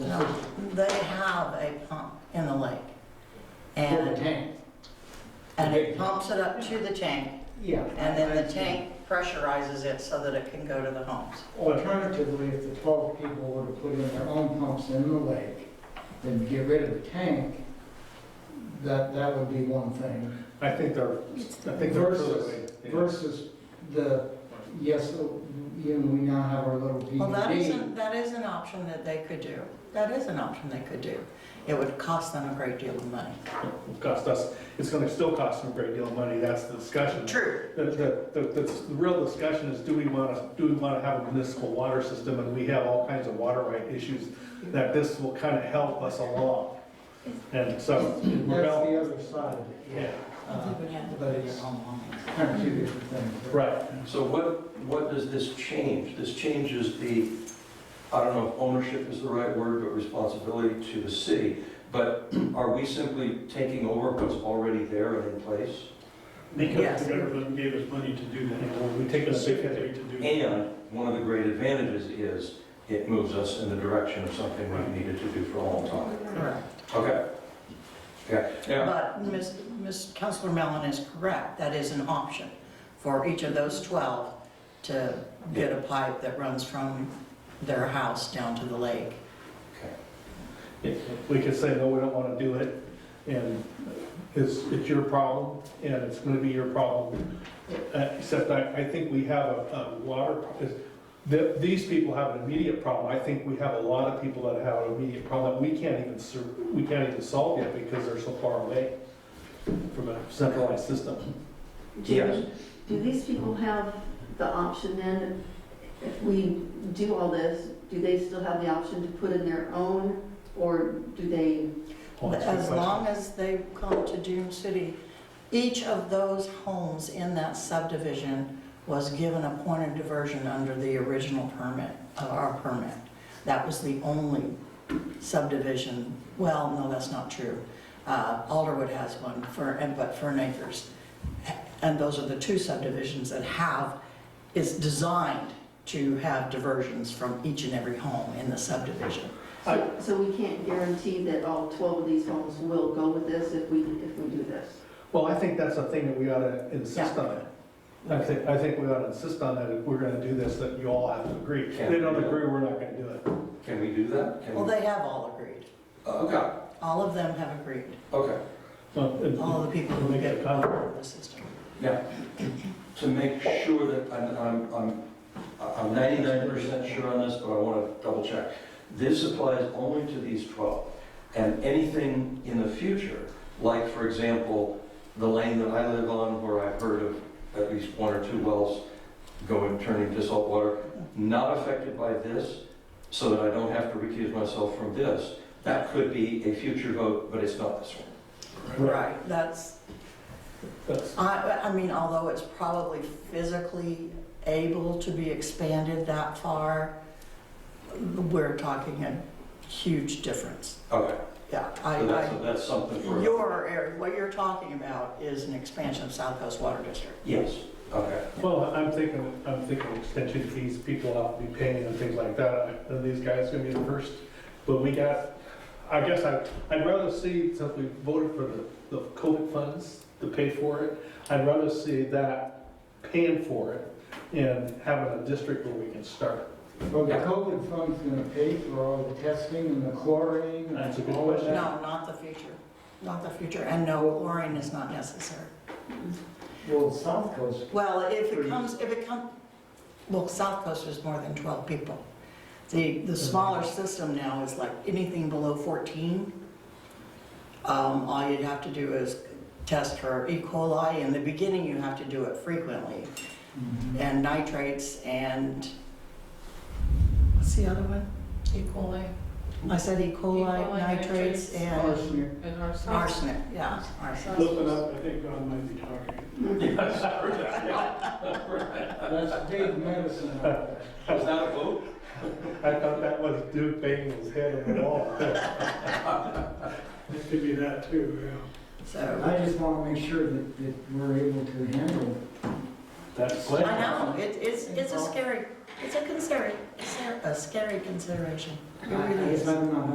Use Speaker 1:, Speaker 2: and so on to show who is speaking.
Speaker 1: No, they have a pump in the lake.
Speaker 2: For the
Speaker 1: And,
Speaker 2: tank?
Speaker 1: and it pumps it up to the tank,
Speaker 2: Yeah.
Speaker 1: and then the tank pressurizes it so that it can go to the homes.
Speaker 2: Alternatively, if the 12 people were to put in their own pumps in the lake, then get rid of the tank, that, that would be one thing.
Speaker 3: I think they're, I think they're.
Speaker 2: Versus, versus the, yes, you know, we now have our little
Speaker 1: Well, that is,
Speaker 2: DVD.
Speaker 1: an- that is an option that they could do. That is an option they could do. It would cost them a great deal of money.
Speaker 3: It'll Cost us, it's gonna still cost them a great deal of money, that's the discussion.
Speaker 1: True.
Speaker 3: The, the, the, the the real discussion is, do we wanna, do we wanna have a municipal water system? And we have all kinds of water right issues that this will kinda help us along. And so, we're
Speaker 2: That's
Speaker 3: bal-
Speaker 2: the other side of it,
Speaker 3: yeah,
Speaker 2: Uh, But it's kind of two different things.
Speaker 3: right.
Speaker 4: So what, what does this change? This changes the, I don't know if ownership is the right word, but responsibility to the city. But are we simply taking over what's already there and in place?
Speaker 1: Yes.
Speaker 5: Because the government gave us money to do that.
Speaker 3: We take a big hit.
Speaker 5: Specifically to do that.
Speaker 4: And one of the great advantages is it moves us in the direction of something we've needed to do for a long time.
Speaker 1: Correct.
Speaker 4: Okay. Yeah, yeah,
Speaker 1: But Ms., Ms., Counselor Mellon is correct, that is an option for each of those 12 to get a pipe that runs from their house down to the lake.
Speaker 4: okay.
Speaker 3: We could say, no, we don't wanna do it, and it's, it's your problem, and it's gonna be your problem. Uh, Except I, I think we have a, a water, pro- is- the- these people have an immediate problem. I think we have a lot of people that have an immediate problem that we can't even, ser- we can't even solve yet because they're so far away from a centralized system.
Speaker 4: Yes.
Speaker 6: Jamie, do these people have the option then, if we do all this, do they still have the option to put in their own? Or do they,
Speaker 3: Oh, that's a good
Speaker 1: As
Speaker 3: question.
Speaker 1: long as they come to Dune City, each of those homes in that subdivision was given a point of diversion under the original permit, of our permit. That was the only subdivision, well, no, that's not true. Uh, Alderwood has one, Fern, and- but Fern Acres. And those are the two subdivisions that have, is designed to have diversions from each and every home in the subdivision.
Speaker 3: I-
Speaker 6: so so we can't guarantee that all 12 of these homes will go with this if we, if we do this?
Speaker 3: Well, I think that's a thing that we ought to insist on it. I think, I think we ought to insist on that if we're gonna do this, that you all have to agree. If they don't agree, we're not gonna do it.
Speaker 4: Can we do that? Can
Speaker 1: Well,
Speaker 4: we- Uh,
Speaker 1: they have all agreed.
Speaker 4: Okay,
Speaker 1: All of them have agreed.
Speaker 4: okay.
Speaker 3: Well, it-
Speaker 1: all the people who
Speaker 3: Make it
Speaker 1: get
Speaker 3: a comment.
Speaker 1: out of the system.
Speaker 4: Yeah, to make sure that, I'm, I'm, I'm I'm 99% sure on this, but I want to double check. This applies only to these 12, and anything in the future, like, for example, the lane that I live on where I've heard of at least one or two wells going, turning to salt water, not affected by this, so that I don't have to recuse myself from this, that could be a future vote, but it's not this one.
Speaker 1: Right. That's,
Speaker 3: That's,
Speaker 1: I, I mean, although it's probably physically able to be expanded that far, we're talking a huge difference.
Speaker 4: Okay,
Speaker 1: Yeah, I, I,
Speaker 4: so that's, that's something for.
Speaker 1: your area, what you're talking about is an expansion of South Coast Water District.
Speaker 4: Yes, okay.
Speaker 3: well, I'm thinking, I'm thinking extension fees, people have to be paying and things like that, and these guys gonna be the first. But we got, I guess I, I'd rather see, since we voted for the, the COVID funds to pay for it, I'd rather see that paying for it and having a district where we can start it.
Speaker 2: Well, the COVID fund's gonna pay for all the testing and the chlorine and all
Speaker 3: That's a good
Speaker 2: of
Speaker 3: question.
Speaker 1: No,
Speaker 2: that.
Speaker 1: not the future, not the future, and no, chlorine is not necessary.
Speaker 2: Well, South Coast,
Speaker 1: Well, if it comes, if it comes, well, South Coast is more than 12 people. The, the smaller system now is like anything below 14. Um, All you'd have to do is test for E. coli. In the beginning, you have to do it frequently,
Speaker 3: Mm-hmm.
Speaker 1: and nitrates and, what's the other one?
Speaker 7: E. coli
Speaker 1: I said E. coli,
Speaker 7: coli,
Speaker 1: nitrates,
Speaker 7: nitrates.
Speaker 1: and
Speaker 2: arsenic.
Speaker 7: and arsenic.
Speaker 1: arsenic, yeah, arsenic.
Speaker 5: Listen up, I think God might be talking.
Speaker 4: Yes, I heard that,
Speaker 2: That's big medicine out there.
Speaker 4: Was that a vote?
Speaker 3: I thought that was Duke banging his head on the wall.
Speaker 5: It could be that too, yeah.
Speaker 1: So,
Speaker 2: I just want to make sure that, that we're able to handle
Speaker 3: That's.
Speaker 1: I know, it- it's, it's a scary, it's a consider, a scary consideration.
Speaker 2: it.
Speaker 1: It really is.
Speaker 2: I- I'm not